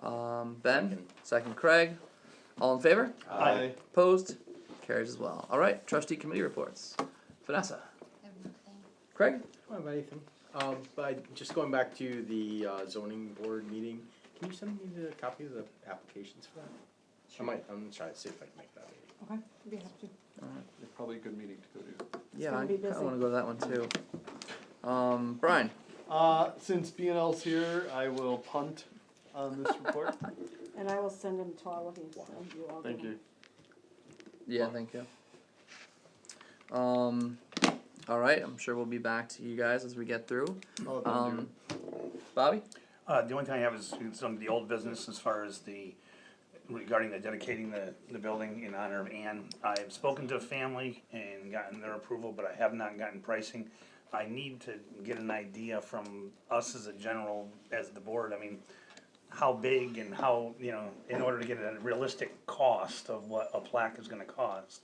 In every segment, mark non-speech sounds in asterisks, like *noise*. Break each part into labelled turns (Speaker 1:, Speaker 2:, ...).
Speaker 1: Um, ben, second Craig. All in favor?
Speaker 2: Aye.
Speaker 1: Opposed? Carries as well. All right, trustee committee reports. Vanessa,
Speaker 3: I have nothing.
Speaker 1: Craig?
Speaker 4: I don't have anything. Um, but just going back to the uh, zoning board meeting, can you send me the copy of the applications for that? I might, I'm gonna try to see if I can make that meeting.
Speaker 5: Okay, we have to.
Speaker 2: It's probably a good meeting to go to.
Speaker 1: Yeah,
Speaker 5: gonna
Speaker 1: I
Speaker 5: be
Speaker 1: kinda
Speaker 5: busy.
Speaker 1: wanna go to that one too. Um, Brian,
Speaker 6: Uh, since B and L's here, I will punt on this report.
Speaker 5: And I will send them to all of you, so you all.
Speaker 6: Thank
Speaker 5: can-
Speaker 6: you.
Speaker 1: yeah, thank you. Um, all right, I'm sure we'll be back to you guys as we get through.
Speaker 6: I'll let them do it.
Speaker 1: Um, Bobby?
Speaker 7: Uh, the only thing I have is some of the old business as far as the, regarding the dedicating the, the building in honor of Anne. I've spoken to a family and gotten their approval, but I have not gotten pricing. I need to get an idea from us as a general, as the board, I mean, how big and how, you know, in order to get a realistic cost of what a plaque is gonna cost.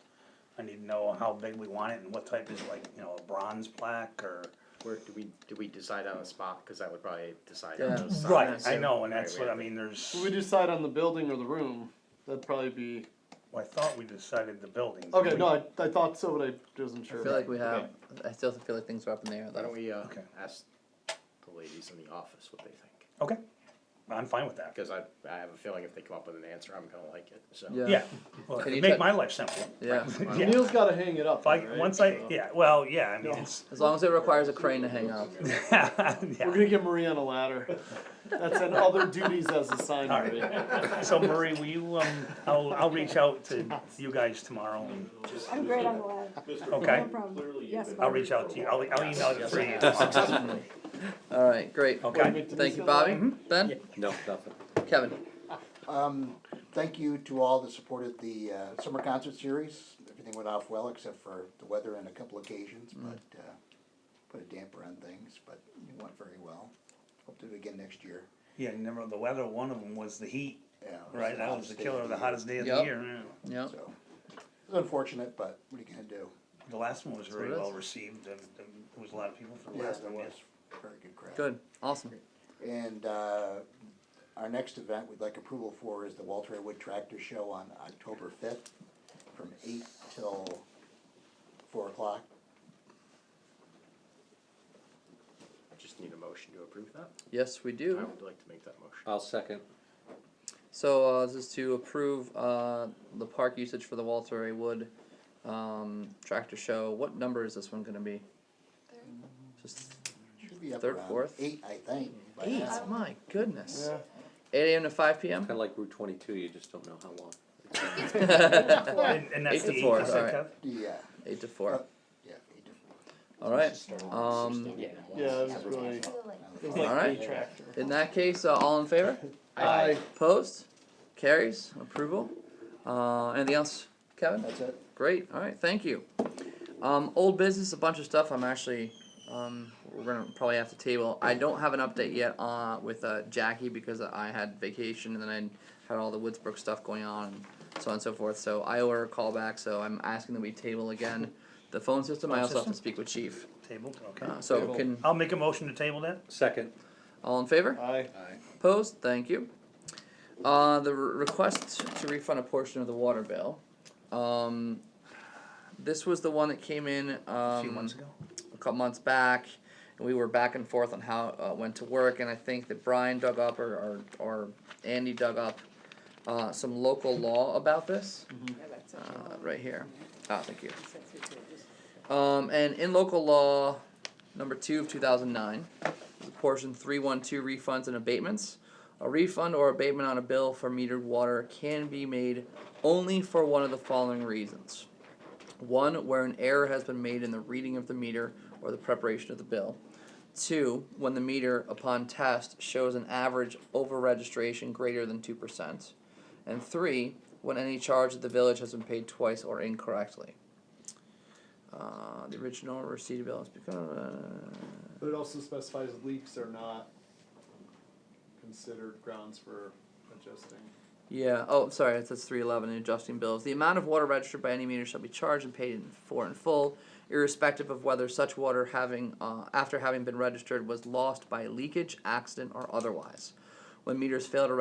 Speaker 7: I need to know how big we want it and what type is like, you know, a bronze plaque or.
Speaker 4: Where, do we, do we decide on a spot, cause that would probably decide
Speaker 1: Yeah.
Speaker 4: on those.
Speaker 7: Right,
Speaker 4: signs.
Speaker 7: I know, and
Speaker 4: Right,
Speaker 7: that's
Speaker 4: we
Speaker 7: what, I
Speaker 4: have to-
Speaker 7: mean, there's.
Speaker 6: If we decide on the building or the room, that'd probably be,
Speaker 7: Well, I thought we decided the building. didn't
Speaker 6: okay,
Speaker 7: we?
Speaker 6: no, I, I thought so, but I wasn't
Speaker 1: I
Speaker 6: sure.
Speaker 1: feel like we
Speaker 6: Okay.
Speaker 1: have, I still feel like things are up in the air.
Speaker 4: Why don't
Speaker 1: though.
Speaker 4: we, uh,
Speaker 7: Okay.
Speaker 4: ask the ladies in the office what they think?
Speaker 7: Okay, I'm fine with that.
Speaker 4: Cause I, I have a feeling if they come up with an answer, I'm gonna like it, so.
Speaker 1: Yeah.
Speaker 7: Yeah, well,
Speaker 1: Can you
Speaker 7: make
Speaker 1: check-
Speaker 7: my life simple.
Speaker 1: Yeah,
Speaker 6: *laughs*
Speaker 7: Yeah.
Speaker 6: Neil's gotta hang it up,
Speaker 7: If I,
Speaker 6: right?
Speaker 7: once I,
Speaker 6: So-
Speaker 7: yeah, well, yeah, I mean, it's, *laughs*
Speaker 1: as long as it requires a crane to hang up.
Speaker 6: We're
Speaker 7: yeah.
Speaker 6: gonna get Marie on a ladder. That's in other duties as assigned,
Speaker 7: All right.
Speaker 6: Marie.
Speaker 7: So Marie, will you, um, I'll, I'll reach out to you guys tomorrow and,
Speaker 5: I'm great
Speaker 6: *laughs*
Speaker 5: on the lab.
Speaker 7: okay?
Speaker 5: No problem. Yes,
Speaker 7: I'll
Speaker 5: Bob.
Speaker 7: reach out to you, I'll, I'll email you for you.
Speaker 1: All right, great.
Speaker 7: Okay,
Speaker 1: Thank you, Bobby.
Speaker 5: Mm-hmm.
Speaker 1: Ben?
Speaker 2: No, nothing.
Speaker 1: Kevin?
Speaker 8: Um, thank you to all that supported the, uh, summer concert series. Everything went off well except for the weather and a couple occasions,
Speaker 7: Mm.
Speaker 8: but, uh, put a damper on things, but it went very well. Hope to do it again next year.
Speaker 7: *laughs* yeah, remember the weather, one of them was the heat,
Speaker 8: Yeah, it was
Speaker 7: right?
Speaker 8: the
Speaker 7: That was
Speaker 8: hottest
Speaker 7: the
Speaker 8: day
Speaker 7: killer, the
Speaker 8: year,
Speaker 7: hottest day of the
Speaker 1: Yep.
Speaker 7: year. yeah.
Speaker 1: Yeah.
Speaker 8: So, it's unfortunate, but what are you gonna do?
Speaker 7: The last one was very
Speaker 1: it is.
Speaker 7: well received, and, and there was a lot of people for the
Speaker 8: Yes,
Speaker 7: last
Speaker 8: it
Speaker 7: one,
Speaker 8: was
Speaker 7: yes.
Speaker 8: very good crowd.
Speaker 1: Good. Awesome.
Speaker 8: And uh, our next event we'd like approval for is the Walter A. Wood Tractor Show on October fifth from eight till four o'clock.
Speaker 4: I Just need a motion to approve that,
Speaker 1: Yes, we
Speaker 4: I
Speaker 1: do.
Speaker 4: would like to make that motion.
Speaker 2: I'll second.
Speaker 1: So uh, this is to approve uh, the park usage for the Walter A. Wood um, tractor show. What number is this one going to be?
Speaker 3: Third.
Speaker 1: Just
Speaker 8: Should be up
Speaker 1: Third,
Speaker 8: around
Speaker 1: fourth?
Speaker 8: Eight, I think. by
Speaker 1: eight.
Speaker 8: now.
Speaker 1: My goodness.
Speaker 6: Yeah.
Speaker 1: Eight a.m. to five p.m.
Speaker 2: Kinda like Route twenty-two, you just don't know how long.
Speaker 1: *laughs*
Speaker 7: And, and that's
Speaker 1: Eight
Speaker 7: the
Speaker 1: to
Speaker 7: eight,
Speaker 1: four,
Speaker 7: you
Speaker 1: alright.
Speaker 7: said, Kev?
Speaker 8: Yeah,
Speaker 1: Eight to four.
Speaker 8: yeah, eight to four.
Speaker 1: All right. Um,
Speaker 6: Yeah, it was
Speaker 3: That was
Speaker 6: really,
Speaker 3: after the light.
Speaker 6: it was like
Speaker 1: Alright.
Speaker 6: the tractor.
Speaker 1: in that case, uh, all in favor?
Speaker 6: Aye.
Speaker 1: Opposed? Carries. Approval. Uh, anything else, Kevin?
Speaker 8: That's it.
Speaker 1: Great. All right. Thank you. Um, old business, a bunch of stuff. I'm actually, um, we're gonna probably have to table. I don't have an update yet uh, with uh, Jackie because I had vacation and then I had all the Woodsbrook stuff going on and so on and so forth. So I owe her a call back. So I'm asking that we table again the phone system. I
Speaker 7: Phone
Speaker 1: also have
Speaker 7: system?
Speaker 1: to speak with Chief.
Speaker 7: Table, okay.
Speaker 1: Uh, so
Speaker 6: Table.
Speaker 1: can
Speaker 7: I'll make a motion to table that.
Speaker 2: Second.
Speaker 1: all in favor?
Speaker 6: Aye.
Speaker 1: Opposed? Thank you. Uh, the re- request to refund a portion of the water bill. Um, this was the one that came in um,
Speaker 7: a few months ago.
Speaker 1: a couple months back, and we were back and forth on how uh, went to work. And I think that Brian dug up or or, or Andy dug up uh, some local law about this
Speaker 5: Yeah, that's it.
Speaker 1: uh, right here. Ah, thank you.
Speaker 5: That's it.
Speaker 1: Um, and in local law, number two of two thousand nine, portion three one two refunds and abatements. A refund or abatement on a bill for metered water can be made only for one of the following reasons. One, where an error has been made in the reading of the meter or the preparation of the bill. Two, when the meter upon test shows an average over registration greater than two percent. And three, when any charge that the village has been paid twice or incorrectly. Uh, the original receipt bill is because uh,
Speaker 6: But it also specifies leaks are not considered grounds for adjusting.
Speaker 1: yeah. Oh, sorry, it says three eleven. Adjusting bills. The amount of water registered by any meter shall be charged and paid in, for in full, irrespective of whether such water having uh, after having been registered was lost by leakage, accident, or otherwise. When meters fail to